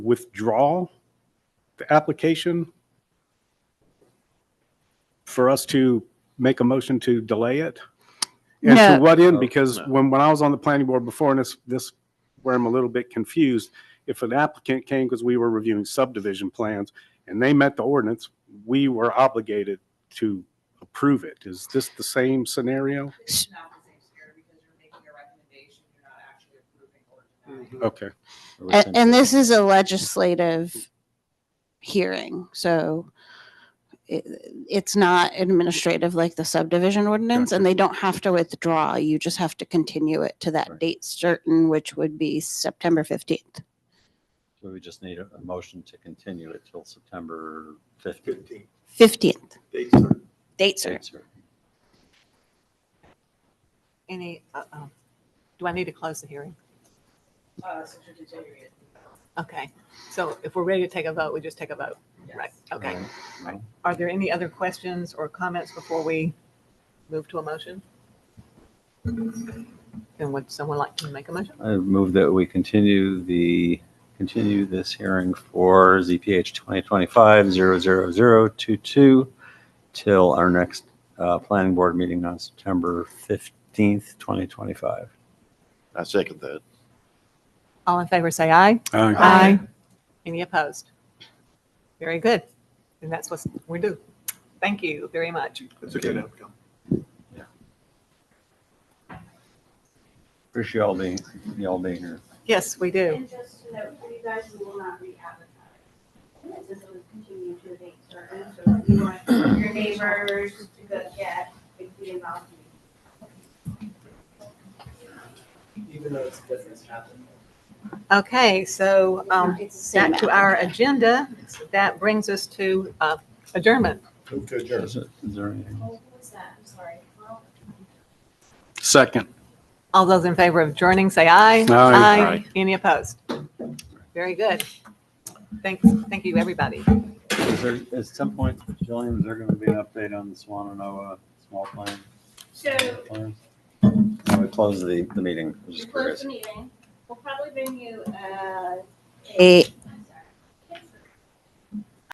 withdraw the application for us to make a motion to delay it? And to No. what end? Oh, Because no. when, when I was on the planning board before, and this, this, where I'm a little bit confused, if an applicant came, because we were reviewing subdivision plans, and they met the ordinance, we were obligated to approve it. Is this the same scenario? It's not the same scenario because you're making a recommendation, you're not actually approving or denying. Okay. And, and this is a legislative hearing, so it, it's not administrative like the subdivision ordinance, and they don't have to withdraw. You just have to continue it to that Right. date certain, which would be September 15th. So we just need a, a motion to continue it till September fifteenth. 15th, date certain. Any, uh-oh. Do I need to close the hearing? Uh, since you're continuing it. Okay, so if we're ready to take a vote, we just take a vote, right? Okay. Are there any other questions or comments before we move to a motion? And would someone like to make a motion? I move that we continue the, continue this hearing for ZPH 2025-00022 till our next uh, planning board meeting on September 15th, 2025. I second that. All in favor, say aye. Uh, Aye. Any opposed? Very good. And that's what we do. Thank you very much. That's a good outcome. Appreciate all being, y'all being here. Yes, we do. And just to note, for you guys, we will not re-advertise. This is continue to a date certain, so if you want your neighbors to go get, if you involve you. Even though this doesn't happen. Okay, so um, It's the same back to app. our agenda. That brings us to uh, adjournment. Move to adjourn. Is it- is there anything? What's that? I'm sorry. Well, Second. All those in favor of adjourning, say aye. Aye. Any opposed? Very good. Thanks, thank you, everybody. Is there, at some point, Jillian, is there going to be an update on the Swananoa small plan? So plans? Can we close the, the meeting? I was we just close curious. the meeting. We'll probably bring you, uh, A